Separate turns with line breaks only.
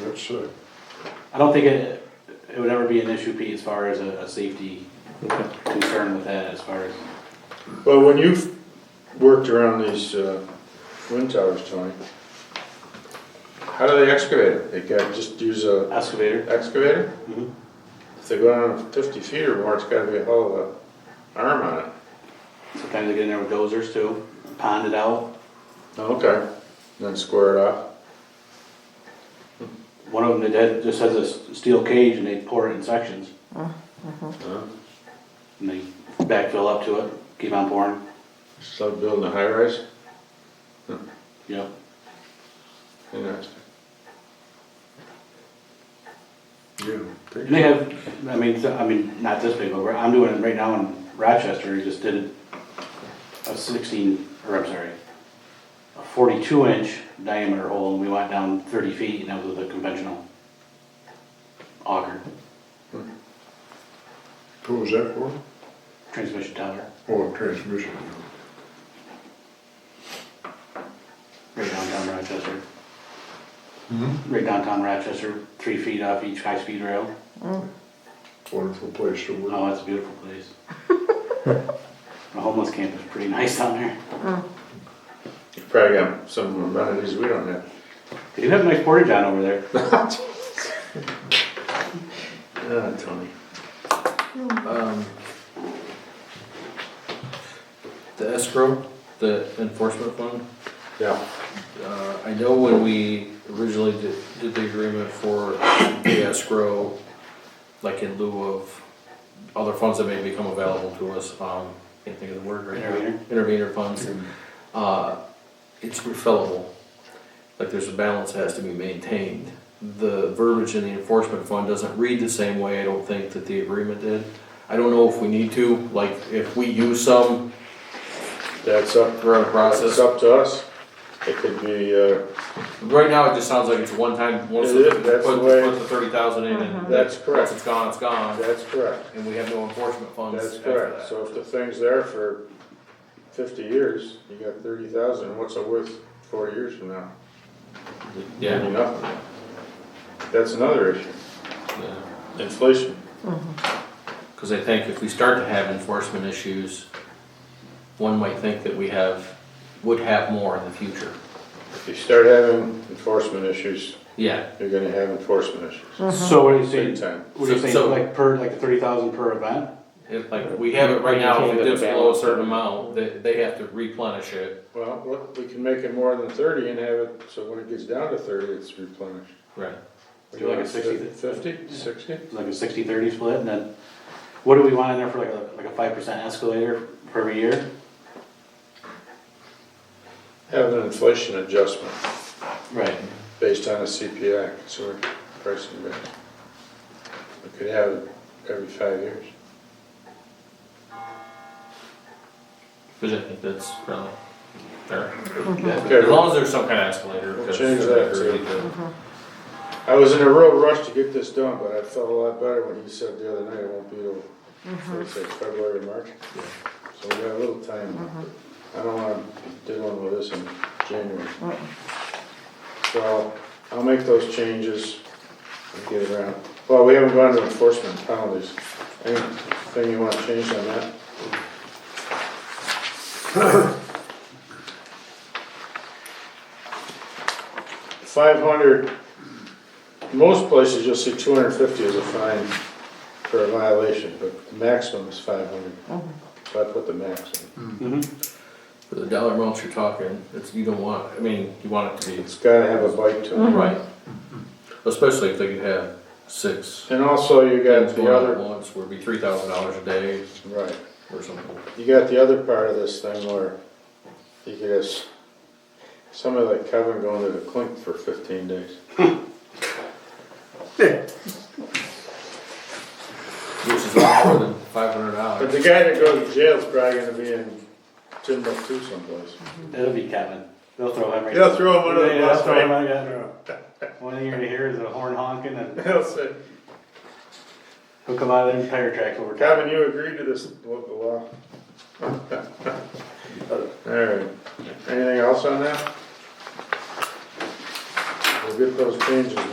That's sick.
I don't think it, it would ever be an issue, Pete, as far as a, a safety concern with that, as far as.
Well, when you've worked around these uh, wind towers, Tony, how do they excavate it? They got, just use a
Excavator?
excavator?
Mhm.
If they go down fifty feet or more, it's gotta be a hell of a arm on it.
Sometimes they get in there with dozers too, pond it out.
Okay. Then square it off.
One of them, they did, just has a s- steel cage and they pour it in sections
huh?
and they backfill up to it, keep on pouring,
Just like building a high rise,
you know.
interesting.
And they have, I mean, so- I mean, not this big, but we're- I'm doing it right now in Rochester, we just did a sixteen, or I'm sorry, a forty-two inch diameter hole and we went down thirty feet and that was with a conventional auger,
Who was that for?
transmission tower,
Oh, transmission.
right downtown Rochester.
Hmm,
Right downtown Rochester, three feet off each high-speed rail.
wonderful place to work.
Oh, that's a beautiful place. The homeless camp is pretty nice down there.
You probably got some amenities we don't have.
They do have a nice portage on over there.
Ah, Tony.
Um, The escrow, the enforcement fund,
Yeah.
uh, I know when we originally did, did the agreement for the escrow, like in lieu of other funds that may become available to us, um, can't think of the word right now.
Intervenor?
Intervenor funds, uh, it's refillable, like there's a balance that has to be maintained. The verbiage in the enforcement fund doesn't read the same way, I don't think, that the agreement did. I don't know if we need to, like, if we use some,
That's up,
we're in a process.
that's up to us. It could be, uh,
Right now, it just sounds like it's a one-time, once
It
the,
is, that's
put,
the way-
put the thirty thousand in and.
That's correct.
Once it's gone, it's gone,
that's correct.
and we have no enforcement funds
That's
after
correct.
that.
So if the thing's there for fifty years, you got thirty thousand, what's it worth four years from now?
Yeah.
Nothing. That's another issue.
yeah.
Inflation.
Because I think if we start to have enforcement issues, one might think that we have, would have more in the future.
If you start having enforcement issues,
Yeah,
you're gonna have enforcement issues.
So what are you
Big
saying?
time.
What are you
So- so-
saying, like per, like the thirty thousand per event?
it, like, we have it right now, if it dips below a certain amount, they, they have to replenish it.
Well, look, we can make it more than thirty and have it, so when it gets down to thirty, it's replenished.
Right.
Would you like a 60?
Fifty, sixty?
Like a 60-30 split and then what do we want in there for like a, like a five percent escalator for every year?
Have an inflation adjustment
Right.
based on a CPI, consumer price index. We could have it every five years.
Because I think that's really fair. As
Okay,
long as there's some kind of escalator.
We'll
'cause
change
I
that
agree
too.
that-
I was in a real rush to get this done, but I felt a lot better when you said the other night it won't be till, let's say, February, March.
Yeah.
So we got a little time. I don't wanna be dealing with this in January. So I'll make those changes and get around. Well, we haven't gone to enforcement penalties. Anything you wanna change on that? Five hundred, most places you'll see two hundred and fifty is a fine for a violation, but the maximum is five hundred. So I put the maximum.
Mm-hmm.
For the dollar amounts you're talking, it's, you don't want, I mean, you want it to be,
It's gotta have a bite to
Mm-hmm.
it.
right. Especially if they could have six.
And also you got
things going
the
on
other
at Once would be three thousand dollars a day
Right,
or something.
you got the other part of this thing where you could have s- somebody like Kevin going to the clink for fifteen days.
Which is a lot more than five hundred dollars.
But the guy that goes to jail is probably gonna be in Timbuktu someplace.
That'll be Kevin. They'll throw him right.
They'll throw him under the
Yeah, they'll
bus,
throw him
right?
under the- One thing you're gonna hear is a horn honking and
They'll say,
he'll come out of the tire tracks over time.
Kevin, you agree to this local law? Alright, anything else on that? We'll get those changes